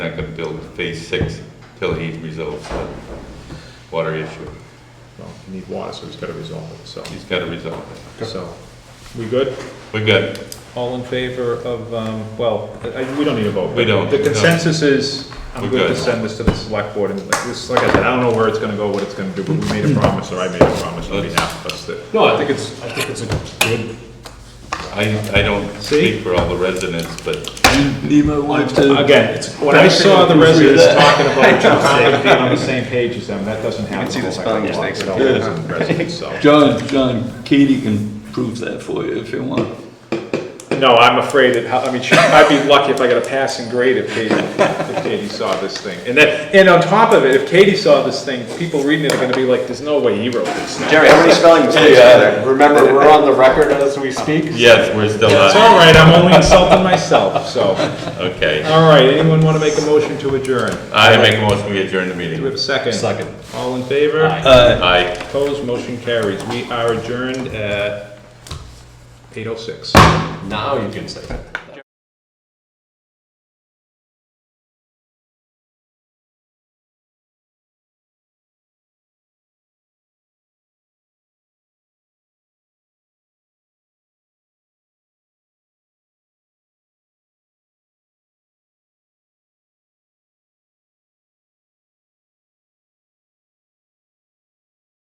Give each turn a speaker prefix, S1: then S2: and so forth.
S1: not gonna build phase six till he resolves the water issue.
S2: Well, you need water, so he's gotta resolve it, so,
S1: He's gotta resolve
S2: so, we good?
S1: it. We're good.
S2: All in favor of, um, well, I, we don't need a vote.
S1: We don't,
S2: The
S1: no.
S2: consensus is, I'm
S1: We're
S2: good to
S1: good.
S2: send this to the select board, and like, this, like I said, I don't know where it's gonna go, what it's gonna do, but we made a promise, or I made a promise, on behalf of us that.
S3: No, I think it's, I think it's a good,
S1: I, I don't
S2: See?
S1: speak for all the residents, but
S4: Lima wants to.
S2: Again, it's- when I saw the residents talking about John Conley being on the same page as them, that doesn't happen. You can see the spelling mistakes. Residents, so.
S4: John, John, Katie can prove that for you if you want.
S2: No, I'm afraid that, I mean, she- I'd be lucky if I got a passing grade if Katie, if Katie saw this thing. And then, and on top of it, if Katie saw this thing, people reading it are gonna be like, there's no way he wrote this.
S5: Jerry, how many spelling mistakes are there? Remember, we're on the record as we speak.
S1: yes, we're still
S2: It's
S1: on.
S2: all right, I'm only insulting myself, so.
S1: Okay.
S2: All right, anyone wanna make a motion to adjourn?
S1: I make a motion, we adjourn the
S2: Do we have
S1: meeting.
S2: a second?
S3: Second.
S2: All in favor?
S1: Aye.
S2: Opposed, motion carries. We are adjourned at eight oh six.
S3: now you can say that.